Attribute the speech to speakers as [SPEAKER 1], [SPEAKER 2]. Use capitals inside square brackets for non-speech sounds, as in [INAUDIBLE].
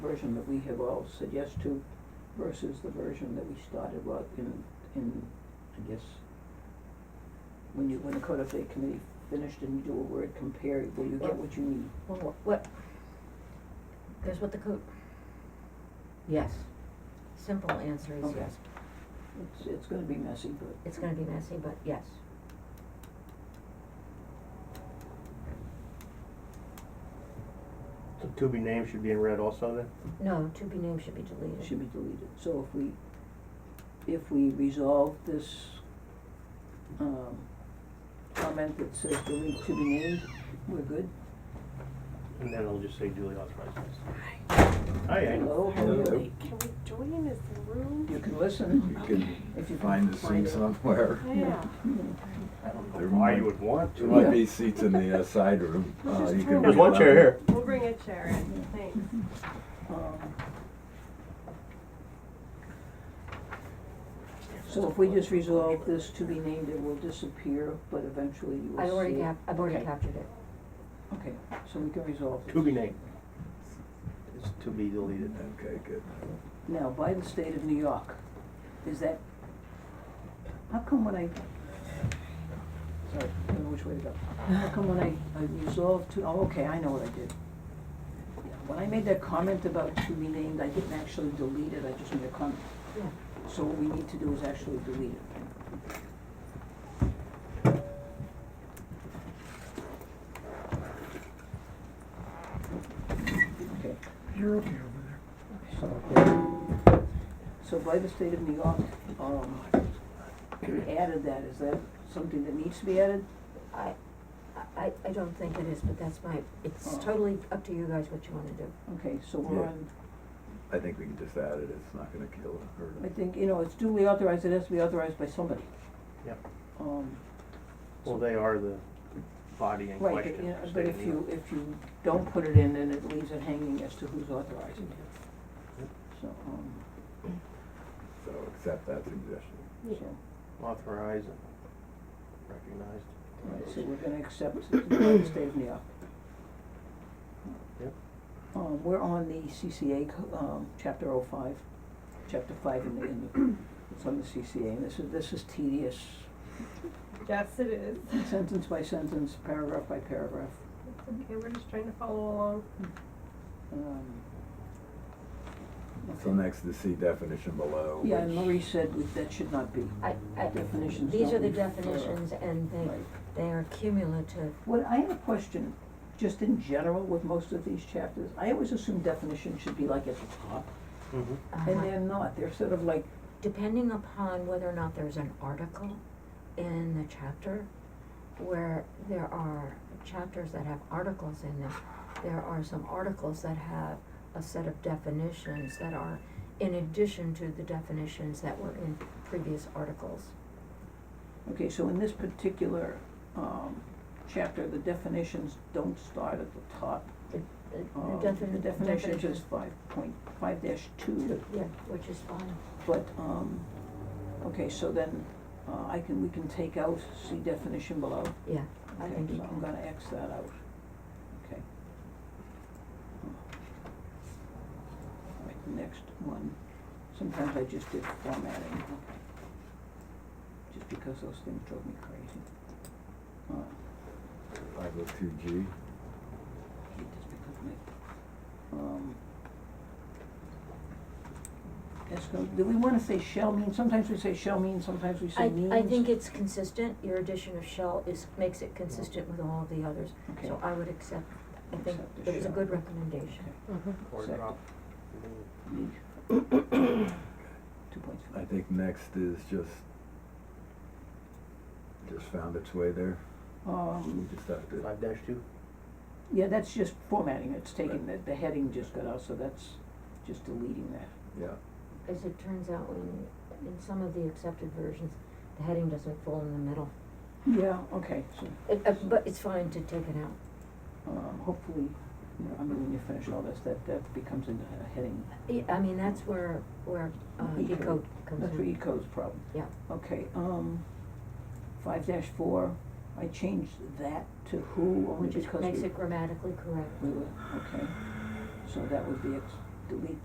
[SPEAKER 1] version that we have all said yes to versus the version that we started with in, in, I guess, when you, when the code update committee finished and you do a word compare, will you get what you need?
[SPEAKER 2] Well, what, what, here's what the code,
[SPEAKER 3] Yes,
[SPEAKER 2] simple answer is
[SPEAKER 1] Okay.
[SPEAKER 2] yes.
[SPEAKER 1] It's, it's gonna be messy, but.
[SPEAKER 2] It's gonna be messy, but yes.
[SPEAKER 4] The to be named should be in red also then?
[SPEAKER 2] No, to be named should be deleted.
[SPEAKER 1] Should be deleted. So if we, if we resolve this, um, comment that says delete to be named, we're good?
[SPEAKER 4] And then it'll just say duly authorized. Hi, Ann.
[SPEAKER 1] Hello, how are
[SPEAKER 5] Hello.
[SPEAKER 1] you?
[SPEAKER 6] Wait, can we join this
[SPEAKER 1] You
[SPEAKER 6] room?
[SPEAKER 1] can listen.
[SPEAKER 5] You can
[SPEAKER 1] If you can
[SPEAKER 5] find the seat
[SPEAKER 1] find it.
[SPEAKER 5] somewhere.
[SPEAKER 6] [LAUGHS] Yeah.
[SPEAKER 4] I don't
[SPEAKER 5] There
[SPEAKER 4] know why
[SPEAKER 5] might-
[SPEAKER 4] you would want
[SPEAKER 5] There
[SPEAKER 4] to.
[SPEAKER 5] might be seats in the uh, side room.
[SPEAKER 6] Let's
[SPEAKER 5] Uh,
[SPEAKER 6] just
[SPEAKER 5] you
[SPEAKER 6] turn
[SPEAKER 5] can
[SPEAKER 6] it
[SPEAKER 4] There's one chair here.
[SPEAKER 6] We'll bring a chair in, thanks.
[SPEAKER 1] Um, So if we just resolve this to be named, it will disappear, but eventually you will see.
[SPEAKER 2] I've already
[SPEAKER 1] it.
[SPEAKER 2] cap, I've already
[SPEAKER 1] Okay.
[SPEAKER 2] captured it.
[SPEAKER 1] Okay, so we can resolve this.
[SPEAKER 4] To be named. It's to be deleted.
[SPEAKER 5] Okay, good.
[SPEAKER 1] Now, by the state of New York, is that, how come when I, sorry, I don't know which way to go. How come when I, I resolved to, oh, okay, I know what I did. Yeah, When I made that comment about to be named, I didn't actually delete it, I just made a comment.
[SPEAKER 2] Yeah.
[SPEAKER 1] So what we need to do is actually delete it. Okay.
[SPEAKER 7] You're okay over there.
[SPEAKER 1] So by the state of New York, um, added that, is that something that needs to be added?
[SPEAKER 2] I, I, I don't think it is, but that's my, it's
[SPEAKER 1] Oh.
[SPEAKER 2] totally up to you guys what you wanna do.
[SPEAKER 1] Okay, so we're
[SPEAKER 5] Yeah.
[SPEAKER 1] on,
[SPEAKER 5] I think we can just add it. It's not gonna kill it hurt
[SPEAKER 1] I
[SPEAKER 5] it.
[SPEAKER 1] think, you know, it's duly authorized, it has to be authorized by somebody.
[SPEAKER 4] Yep.
[SPEAKER 1] Um,
[SPEAKER 4] Well, they are the body in
[SPEAKER 1] right, but,
[SPEAKER 4] question.
[SPEAKER 1] you know,
[SPEAKER 4] state
[SPEAKER 1] but
[SPEAKER 4] of
[SPEAKER 1] if
[SPEAKER 4] New
[SPEAKER 1] you,
[SPEAKER 4] York.
[SPEAKER 1] if you don't put it in, then it leaves it hanging as to who's authorizing it.
[SPEAKER 4] Yep.
[SPEAKER 1] So, um,
[SPEAKER 5] So accept that suggestion.
[SPEAKER 1] so,
[SPEAKER 4] Authorized and recognized.
[SPEAKER 1] right, so we're gonna accept it by the state of New York.
[SPEAKER 4] Yep.
[SPEAKER 1] Um, we're on the CCA, co- um, chapter oh five, chapter five in the, in the, it's on the CCA, and this is, this is tedious.
[SPEAKER 6] Yes, it is.
[SPEAKER 1] Sentence by sentence, paragraph by paragraph,
[SPEAKER 6] Okay, we're just trying to follow along.
[SPEAKER 1] um.
[SPEAKER 5] So
[SPEAKER 1] okay.
[SPEAKER 5] next, the C definition below,
[SPEAKER 1] Yeah, and
[SPEAKER 5] which-
[SPEAKER 1] Marie said we- that should not be,
[SPEAKER 2] I, I,
[SPEAKER 1] Mm, Definitions
[SPEAKER 2] these
[SPEAKER 1] don't
[SPEAKER 2] are the
[SPEAKER 1] need to be-
[SPEAKER 2] definitions and they,
[SPEAKER 1] right.
[SPEAKER 2] they are cumulative.
[SPEAKER 1] What, I have a question, just in general with most of these chapters, I always assume definitions should be like at the top,
[SPEAKER 4] Mhm.
[SPEAKER 2] Uh-huh.
[SPEAKER 1] and they're not, they're sort of like,
[SPEAKER 2] depending upon whether or not there's an article in the chapter, where there are chapters that have articles in them, there are some articles that have a set of definitions that are in addition to the definitions that were in previous articles.
[SPEAKER 1] okay, so in this particular, um, chapter, the definitions don't start at the top.
[SPEAKER 2] The-
[SPEAKER 1] Um,
[SPEAKER 2] The defin-
[SPEAKER 1] the definition
[SPEAKER 2] definition-
[SPEAKER 1] is five point, five dash two,
[SPEAKER 2] Yeah, which is fine.
[SPEAKER 1] but, um, okay, so then, uh, I can, we can take out C definition below.
[SPEAKER 2] Yeah, I
[SPEAKER 1] Okay,
[SPEAKER 2] think you
[SPEAKER 1] so I'm
[SPEAKER 2] can.
[SPEAKER 1] gonna X that out, okay. All right, the next one, sometimes I just did formatting, okay. Just because those things drove me crazy. Uh,
[SPEAKER 5] five oh two G.
[SPEAKER 1] hate this because my, um. That's gonna, do we wanna say shall mean, sometimes we say shall mean, sometimes we say
[SPEAKER 2] I,
[SPEAKER 1] means.
[SPEAKER 2] I think it's consistent, your addition of shell is, makes it consistent with all of the others,
[SPEAKER 1] Okay.
[SPEAKER 2] so I would accept, I think
[SPEAKER 1] Accept the
[SPEAKER 2] it was a
[SPEAKER 1] shell.
[SPEAKER 2] good recommendation.
[SPEAKER 4] Or
[SPEAKER 1] Second.
[SPEAKER 4] drop.
[SPEAKER 2] uh, [COUGHS]
[SPEAKER 1] Need. Two points.
[SPEAKER 5] I think next is just, just found its way there. We
[SPEAKER 1] Um,
[SPEAKER 5] just have to,
[SPEAKER 4] Five dash two.
[SPEAKER 1] yeah, that's just formatting, it's taking, the, the heading just got out, so that's just deleting that.
[SPEAKER 5] yeah.
[SPEAKER 2] As it turns out, when, in some of the accepted versions, the heading doesn't fall in the middle.
[SPEAKER 1] Yeah, okay, so,
[SPEAKER 2] It, uh, but it's fine to take it out.
[SPEAKER 1] um, hopefully, you know, I mean, when you finish all this, that, that becomes a, a heading.
[SPEAKER 2] I, I mean, that's where, where, uh,
[SPEAKER 1] Eco.
[SPEAKER 2] decode comes in.
[SPEAKER 1] That's where ECO's problem.
[SPEAKER 2] Yeah.
[SPEAKER 1] Okay, um, five dash four, I changed that to who only
[SPEAKER 2] Which is,
[SPEAKER 1] because we.
[SPEAKER 2] makes it grammatically correct.
[SPEAKER 1] We were, okay, so that would be ex- delete